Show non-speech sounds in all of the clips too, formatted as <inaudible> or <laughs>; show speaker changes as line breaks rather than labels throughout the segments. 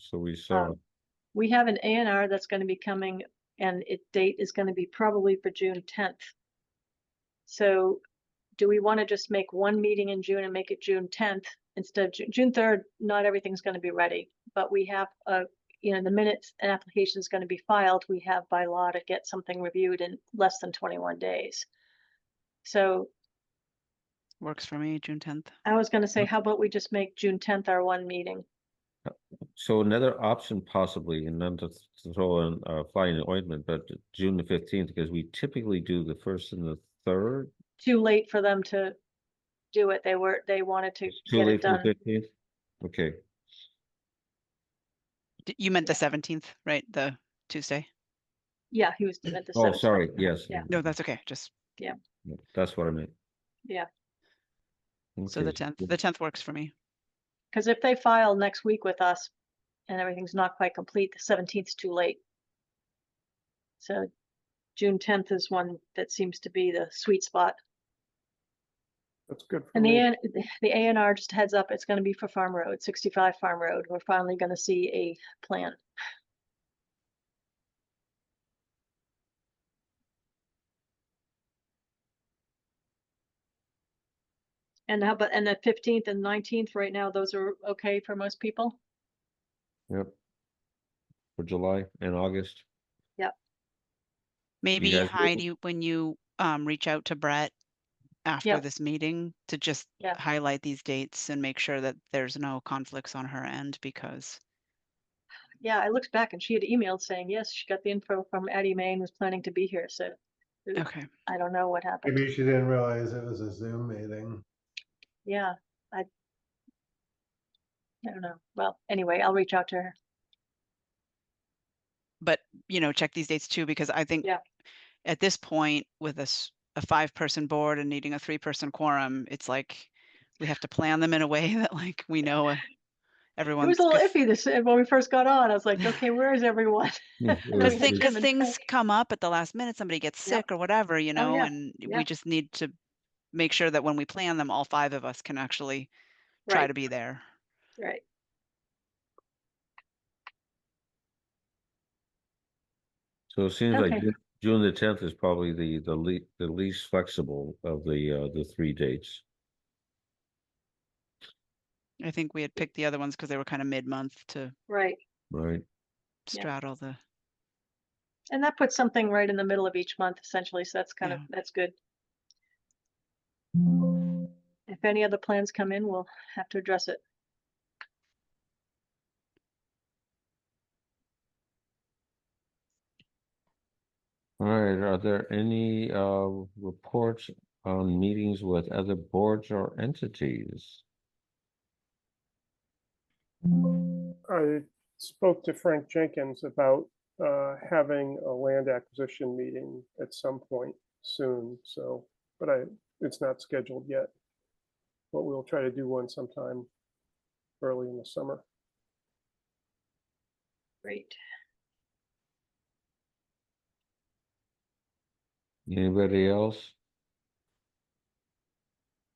so
Uh,
we saw.
We have an A and R that's gonna be coming and it date is gonna be probably for June tenth. So do we wanna just make one meeting in June and make it June tenth instead of Ju- June third? Not everything's gonna be ready, but we have, uh, you know, the minutes and application's gonna be filed. We have by law to get something reviewed in less than twenty-one days. So
Works for me, June tenth.
I was gonna
Mm.
say, how about we just make June tenth our one meeting?
So another option possibly, and not to th- to throw in uh fly in the ointment, but June the fifteenth, because we typically do the first and the third.
Too late for them to do it. They were, they wanted to
It's Too
get it
late for
done.
the fifteenth? Okay,
You meant the seventeenth, right? The Tuesday?
Yeah, he was at the.
oh,
17th.
sorry, yes.
Yeah.
No, that's okay. Just,
yeah, That's what I meant.
Yeah.
so the
Okay,
tenth,
good.
the tenth works for me.
Because if they file next week with us and everything's not quite complete, the seventeenth's too late. So June tenth is one that seems to be the sweet spot.
That's good. for
And the,
me.
A- the A and R just heads up, it's gonna be for Farm Road, sixty-five Farm Road. We're finally gonna see a plan. And how about, and the fifteenth and nineteenth, right now, those are okay for most people?
Yep. For July and August.
Maybe
guys will-
Heidi, when you um reach out to Brett after
Yep.
this meeting to just
Yeah.
highlight these dates and make sure that there's no conflicts on her end because
Yeah, I looked back and she had emailed saying, yes, she got the info from Addie May and was planning to be here, so uh,
okay.
I don't know what happened.
Maybe she didn't realize it was a Zoom meeting.
Yeah, I I don't know. Well, anyway, I'll reach out to her.
But you know, check these dates too, because I think
Yeah.
at this point with a s- a five person board and needing a three person quorum, it's like we have to plan them in a way <laughs> that like we know uh,
It
everyone's
was a little
good-
iffy this, uh, when we first got on. I was like, okay, where is everyone? <laughs>
Yeah, it was-
Because
Everything
thing,
it-
<laughs> cause
comes in
things
quick.
come up at the last minute, somebody gets
Yep. Oh,
sick or whatever, you know,
yeah,
and
yeah.
we just need to make sure that when we plan them, all five of us can actually try to
Right,
be there.
right.
So it seems like
Okay.
Ju- June the tenth is probably the the le- the least flexible of the uh the three dates.
I think we had picked the other ones because they were kind of mid-month to
Right.
Right,
Yeah.
straddle the,
And that puts something right in the middle of each month essentially, so that's kind of,
Yeah.
that's good. If any other plans come in, we'll have to address it.
all right, are there any uh reports on meetings with other boards or entities?
I spoke to Frank Jenkins about uh, having a land acquisition meeting at some point soon, so, but I, it's not scheduled yet. But we'll try to do one sometime early in the summer.
Great.
Anybody else?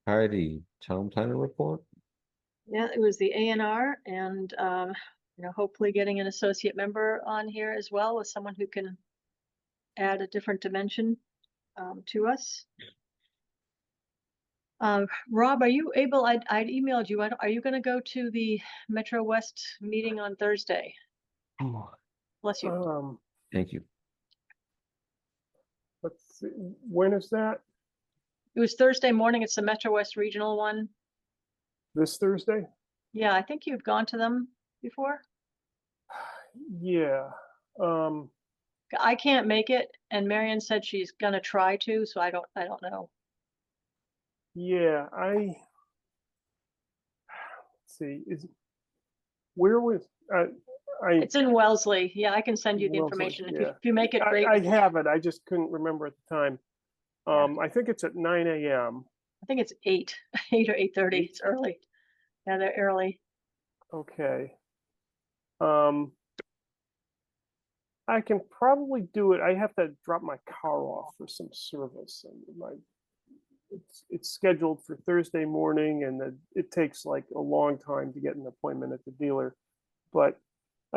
Heidi, town planner report?
Yeah, it was the A and R and, um, you know, hopefully getting an associate member on here as well with someone who can add a different dimension, um, to us. Um, Rob, are you able, I, I emailed you, I don't- are you gonna go to the Metro West meeting on Thursday? Bless you.
Um,
Thank you.
let's see, when is that?
It was Thursday morning. It's the Metro West Regional one.
This Thursday?
Yeah, I think you've gone to them before.
Yeah, um,
I can't make it and Marion said she's gonna try to, so I don't, I don't know.
yeah, I. let's See, is, where was, I, I.
It's in Wellesley. Yeah, I can send you the
Wellesley,
information. If you,
yeah.
if you make it great,
I, I have it. I just couldn't remember at the time. Um, I think it's at nine AM.
I think it's eight, <laughs> eight or eight thirty. It's early. Yeah, they're early.
Okay. Um, I can probably do it. I have to drop my car off for some service and my, it's, it's scheduled for Thursday morning and the, it takes like a long time to get an appointment at the dealer. But